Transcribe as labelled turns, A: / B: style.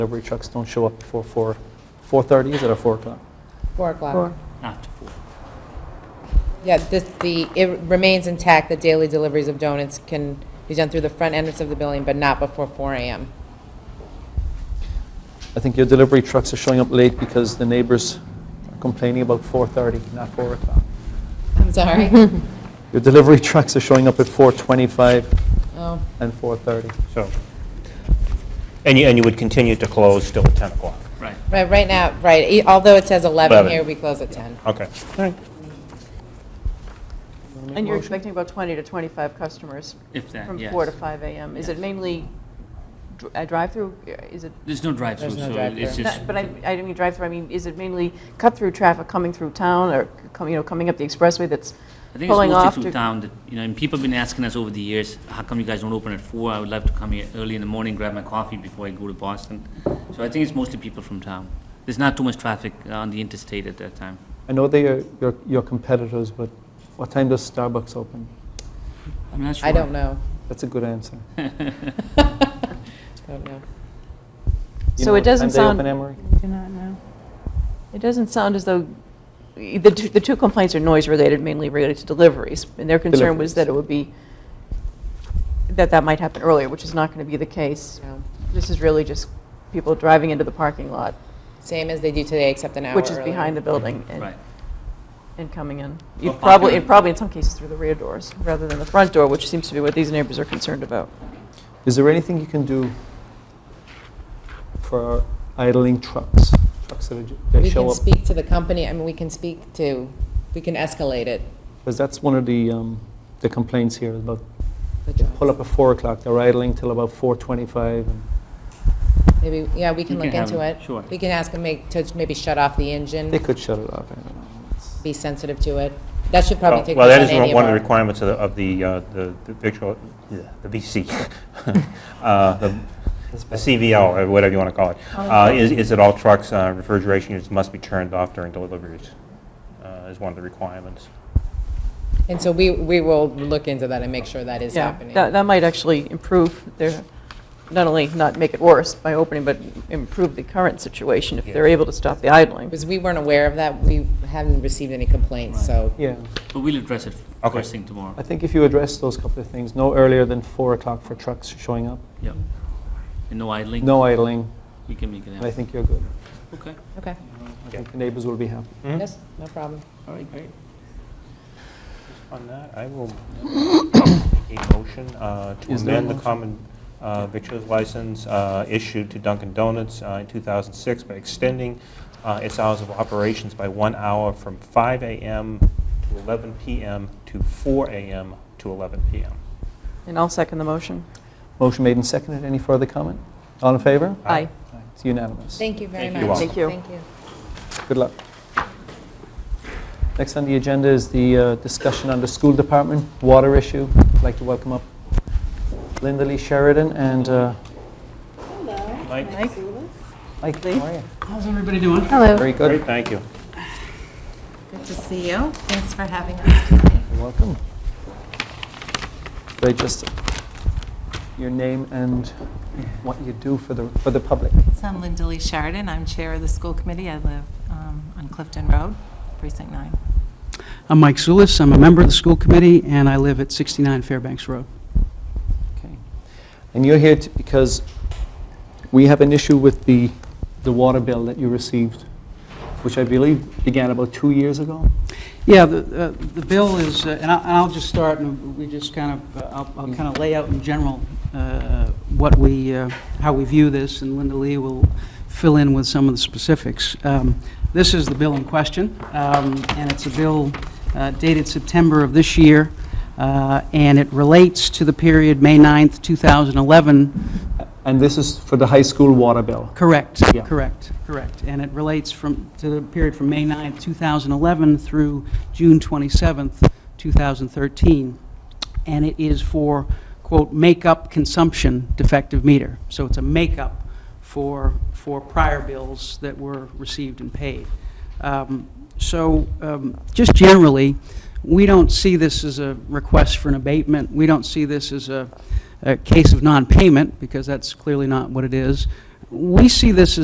A: delivery trucks don't show up before 4, 4:30, is it, or 4 o'clock?
B: 4 o'clock.
C: Four.
A: After 4.
B: Yeah, this, the, it remains intact, the daily deliveries of donuts can be done through the front entrance of the building, but not before 4 AM.
A: I think your delivery trucks are showing up late because the neighbors are complaining about 4:30, not 4 o'clock.
B: I'm sorry.
A: Your delivery trucks are showing up at 4:25
B: Oh,
A: and 4:30.
D: So, and you, and you would continue to close till 10 o'clock?
A: Right.
B: Right, right now, right, e- although it says 11
D: Eleven.
B: here, we close at 10.
D: Okay.
E: And you're expecting about 20 to 25 customers?
F: If that,
E: From 4 to
F: Uh, yes.
E: 5 a.m. Is it
F: Yes.
E: mainly dr- a drive-through? Is it,
F: There's no drive-through,
B: There's no
F: so
B: drive-through.
F: it's just,
E: not- but I I didn't mean drive-through, I mean, is it mainly cut-through traffic coming through town or, com- you know, coming up the expressway that's
F: I think it's
E: pulling off?
F: mostly through
E: to-
F: town, that, you know, and people have been asking us over the years, how come you guys don't open at four? I would love to come here early in the morning, grab my coffee before I go to Boston. So I think it's mostly people from town. There's not too much traffic on the interstate at that time.
A: I know they are your- your competitors, but what time does Starbucks open?
F: I'm not sure.
B: I don't know.
A: That's a good answer. You
B: Don't know.
A: know
E: So it
A: what time
E: doesn't
A: they
E: sound,
A: open, Emery?
C: Do not know.
E: it doesn't sound as though, the two- the two complaints are noise-related, mainly related to deliveries, and their concern
A: Deliveries.
E: was that it would be, that that might happen earlier, which is not going to be the case.
B: No.
E: This is really just people driving into the parking lot,
B: Same as they do today, except an hour
E: which is
B: earlier.
E: behind the building. and-
F: Right.
E: and coming in.
F: Well,
E: You'd probably,
F: popular-
E: and probably in some cases through the rear doors, rather than the front door, which seems to be what these neighbors are concerned about.
A: Is there anything you can do for idling trucks? Trucks that are ju- they
B: We
A: show
B: can
A: up?
B: speak to the company, I mean, we can speak to, we can escalate it.
A: Because that's one of the um, the complaints here, about
B: the
A: they
B: jobs.
A: pull up at 4 o'clock, they're idling till about 4:25. and-
B: Maybe, yeah, we can
F: You
B: look
F: can have
B: into
F: them,
B: it.
F: sure.
B: We can ask them make- to maybe shut off the engine,
A: They could shut it off, I don't know. It's-
B: be sensitive to it. That should probably take
D: Well,
B: place
D: that
B: on
D: is one-
B: any of
D: one of the
B: our...
D: requirements of the, of the, uh, the the victual, yeah, the VC, Uh, the the CVL, or whatever you want to call it,
B: Oh,
D: uh, is, is that all trucks, uh, refrigeration units must be turned off during deliveries, uh, is one of the requirements.
B: And so we, we will look into that and make sure that is
E: Yeah,
B: happening.
E: that, that might actually improve their, not only not make it worse by opening, but improve the current situation if they're able to stop the idling.
B: Because we weren't aware of that, we haven't received any complaints,
F: Right.
B: so
A: Yeah,
F: But we'll address it
D: Okay.
F: first thing tomorrow.
A: I think if you address those couple of things, no earlier than 4 o'clock for trucks showing up,
F: Yep. And no idling?
A: no idling,
F: We can make it
A: and I
F: happen.
A: think you're good.
F: Okay.
B: Okay,
A: I think the neighbors will be happy.
B: yes, no problem.
F: All right, great.
D: On that, I will make a motion uh, to
A: Is there a
D: amend the
A: motion?
D: common uh, victuals license uh, issued to Dunkin' Donuts uh, in 2006 by extending uh, its hours of operations by one hour from 5 a.m. to 11 p.m. to 4 a.m. to 11 p.m.
E: And I'll second the motion.
A: Motion made and seconded, any further comment? All in favor?
E: Aye.
A: It's unanimous.
B: Thank you very
F: Thank you.
B: much.
D: You're welcome.
E: Thank you.
B: Thank you.
A: Good luck. Next on the agenda is the uh, discussion on the school department water issue. I'd like to welcome up Linda Lee Sheridan and uh,
D: Mike,
A: Mike. How are you?
G: How's everybody doing?
C: Hello.
A: Very
D: great,
A: good.
D: thank you.
H: Good to see you. Thanks for having us today.
A: You're Welcome. They just, your name and what you do for the, for the public.
H: So I'm Linda Lee Sheridan. I'm Chair of the School Committee. I live um, on Clifton Road, Precinct 9.
G: I'm Mike Zulis, I'm a member of the school committee, and I live at 69 Fairbanks Road.
A: Okay. And you're here to- because we have an issue with the, the water bill that you received, which I believe began about two years ago?
G: Yeah, the uh, the bill is, uh, and I- and I'll just start, and we just kind of, uh, I'll- I'll kind of lay out in general uh, what we, uh, how we view this, and Linda Lee will fill in with some of the specifics. Um, This is the bill in question, um, and it's a bill uh, dated September of this year, uh, and it relates to the period May 9th, 2011,
A: And this is for the high school water bill.
G: Correct,
A: Yeah.
G: correct, correct. And it relates from, to the period from May 9th, 2011 through June 27th, 2013. And it is for, quote, "make-up consumption defective meter." So it's a make-up for, for prior bills that were received and paid. Um, So um, just generally, we don't see this as a request for an abatement. We don't see this as a, a case of non-payment, because that's clearly not what it is. we see this as